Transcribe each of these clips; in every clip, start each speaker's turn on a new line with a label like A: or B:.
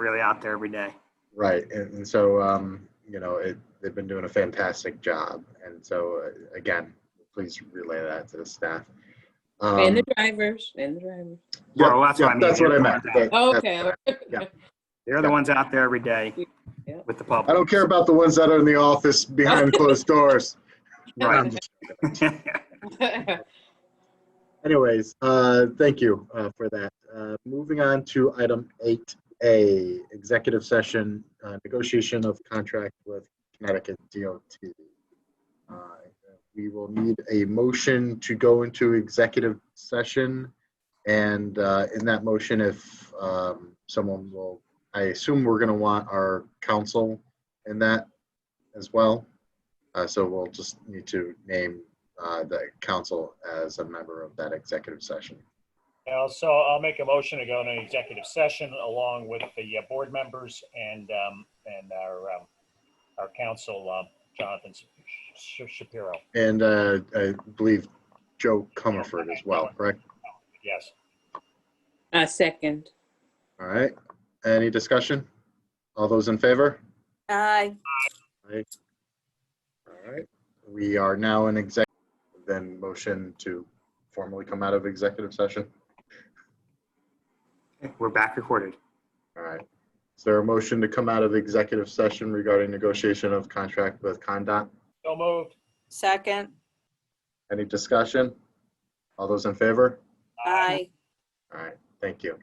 A: really out there every day.
B: Right, and, and so um, you know it, they've been doing a fantastic job, and so uh, again, please relay that to the staff. Um,
C: And the drivers, and the drivers.
B: yeah,
A: Well, that's
B: yeah,
A: what I mean.
B: That's what I meant. That-
C: Oh,
B: that's
C: Okay,
B: what I-
A: They're the ones out there every day
C: Yeah.
A: with the
B: I
A: public.
B: don't care about the ones that are in the office behind closed doors.
A: Right.
B: Um, Anyways, uh, thank you uh, for that. Uh, Moving on to item 8A, executive session, uh, negotiation of contract with Connecticut DOT. Uh, We will need a motion to go into executive session. And uh, in that motion, if um, someone will, I assume we're going to want our counsel in that as well. Uh, So we'll just need to name uh, the council as a member of that executive session.
D: Yeah, so I'll make a motion to go into executive session along with the uh, board members and, um, and our, um, our counsel, um, Jonathan Sh- Shapiro.
B: And uh, I believe Joe Comerford as well, correct?
D: Yes.
C: I Uh, second.
B: All right. Any discussion? All those in favor?
E: Aye.
B: All right. We are now in exec, then motion to formally come out of executive session.
A: We're back recorded.
B: All right. Is there a motion to come out of executive session regarding negotiation of contract with Condot?
D: So moved.
E: Second.
B: Any discussion? All those in favor?
E: Aye.
B: All right, thank you.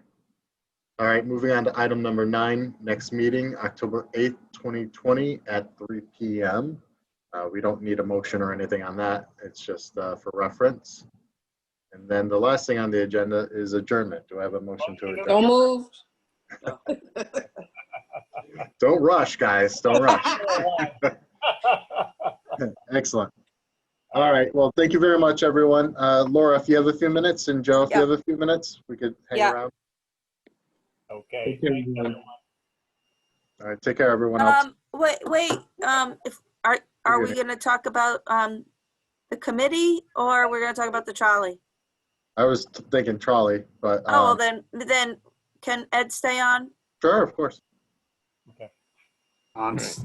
B: All right, moving on to item number nine, next meeting, October 8th, 2020 at 3 PM. Uh, We don't need a motion or anything on that. It's just uh, for reference. And then the last thing on the agenda is adjournment. Do I have a motion to
C: Don't
B: adjourn?
C: move.
B: Don't rush, guys. Don't rush.
D: Aye.
B: Excellent. All right, well, thank you very much, everyone. Uh, Laura, if you have a few minutes, and Joe, if you
E: Yeah.
B: have a few minutes, we could hang
E: Yeah.
B: around.
D: Okay.
F: Take care,
D: thanks,
F: everyone.
D: everyone.
B: All right, take care, everyone else.
E: Um, wait, wait, um, if, are, are we gonna talk about, um, the committee or we're gonna talk about the trolley?
B: I was thinking trolley, but
E: Oh, well
B: um,
E: then, then can Ed stay on?
B: sure, of course.
A: Um, s-